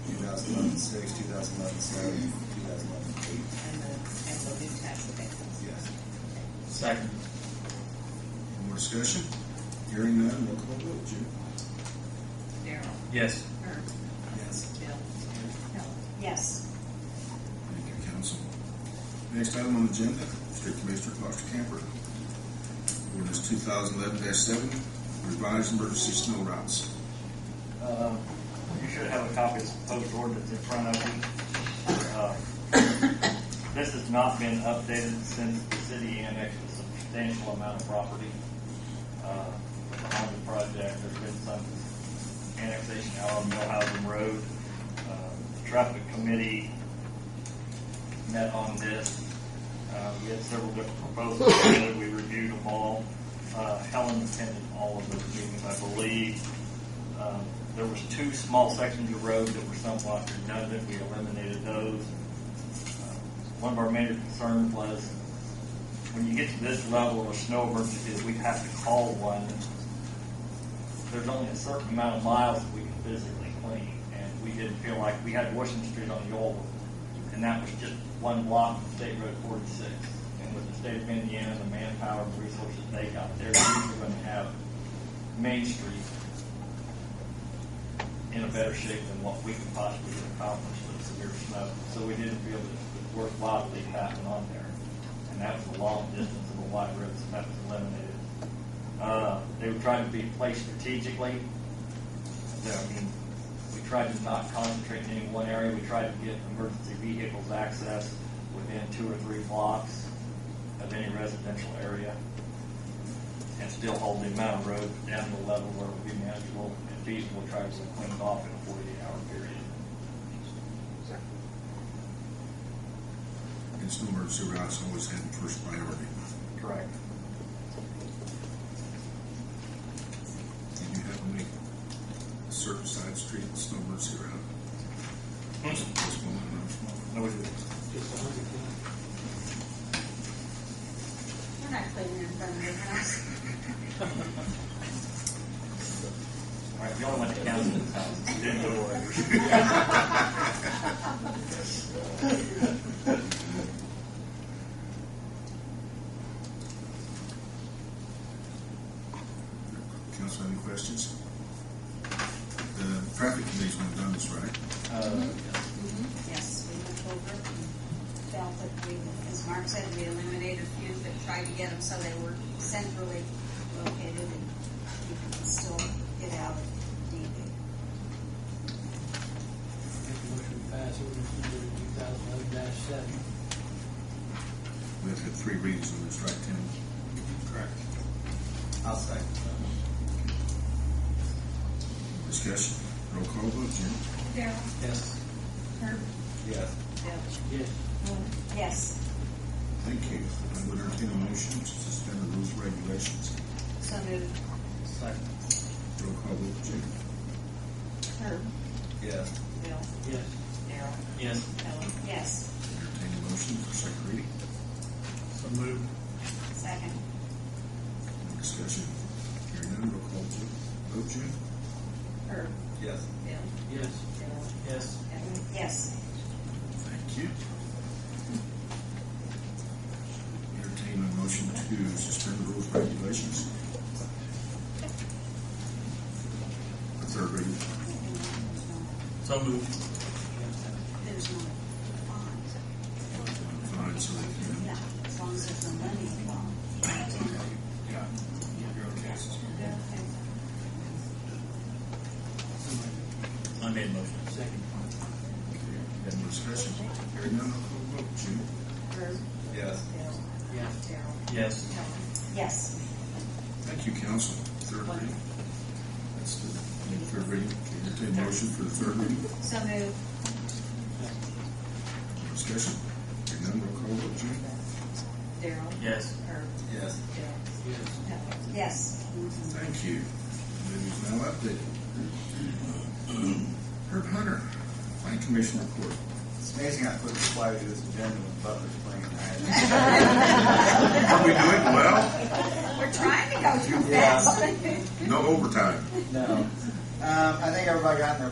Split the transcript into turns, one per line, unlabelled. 2011 six, 2011 seven, 2011 eight.
and the, and the new tax abatements.
Yes.
Second.
Any more discussion? Hearing none, roll call vote, Jim.
Daryl,
Yes.
Herb,
Yes.
Bill, Helen.
Yes.
Thank you, council. Next item on the agenda, Street Commissioner Foster Camper. Ordinance 2011-7, revised emergency snow routes.
Uh, You should have a copy of the proposed ordinance in front of you. Uh, This has not been updated since the city annexed a substantial amount of property. uh, with the Holman project, there's been some annexation out on Millhausen Road. Uh, The Traffic committee met on this. Uh, We had several different proposals, together. we reviewed them all. Uh, Helen attended all of those meetings, I believe. Um, There was two small sections of road that were somewhat redundant, we eliminated those. Uh, One of our major concerns was, when you get to this level of a snow emergency, we have to call one. There's only a certain amount of miles that we can physically clean, and we didn't feel like, we had Washington Street on the old, one, and that was just one block of State Road forty-six. And with the state of Indiana, the manpower, and resources they got there, we were gonna have Main Street in a better shape than what we could possibly accomplish with severe snow. So we didn't feel that it was worthwhile to leave that one on there. And that was a long distance of a wide road, so that was eliminated. Uh, They were trying to be placed strategically. There, I mean, we tried to not concentrate in any one area. We tried to get emergency vehicles access within two or three blocks of any residential area and still hold the amount of road down to a level where it would be manageable and feasible, try to clean it off in a forty-eight hour period.
And snow emergency routes always had first priority.
Correct.
Did you have to make a certain side street snow emergency route?
Hmm?
Just just one, another small.
No, we didn't.
We're not cleaning in front of your house.
All right, we only went to council's house, We didn't go to ours.
Council, any questions? The traffic committee's not done this, right?
Uh,
Yes, we looked over and felt that we, as Mark said, we eliminated a few, but tried to get them so they were centrally located and you could still get out if needed.
Make a motion to pass ordinance number two thousand eleven dash seven.
We have to have three readings on this, right, Tim?
Correct. I'll second.
Discussion, roll call vote, Jim?
Daryl?
Yes.
Herb?
Yes.
Bill?
Yes.
Yes.
Thank you. I would entertain a motion to suspend the rules and regulations.
So moved.
Second.
Roll call vote, Jim?
Herb?
Yes.
Bill,
Yes.
Daryl,
Yes.
Helen.
Yes.
Entertain a motion for second reading.
So moved.
Second.
Discussion, hearing none, roll call Jim. vote, Jim?
Herb,
Yes.
Bill,
Yes.
Daryl,
Yes.
Helen.
Yes.
Thank you. Entertain a motion to suspend the rules and regulations. The third reading.
So moved.
There's no bond.
Fine, so they can.
Yeah, as long as there's no money involved.
Yeah. You're okay.
I made a motion.
Second.
Okay. Any discussion? Hearing none, roll call vote, Jim?
Herb,
Yes.
Bill,
Yes.
Daryl,
Yes.
Helen.
Yes.
Thank you, council. Third reading. That's the, the third reading. Entertain a motion for the third reading.
So moved.
Discussion. Hearing none, roll call vote, Jim?
Daryl,
Yes.
Herb,
Yes.
Bill,
Yes.
Helen.
Yes.
Thank you. News now updated. Herb Hunter, Plan Commission report.
It's amazing I put a slide to this agenda with Butler's playing. I
Are we doing well?
We're trying to go through
Yeah.
fast.
No overtime.
had- No. Um, I think everybody got in their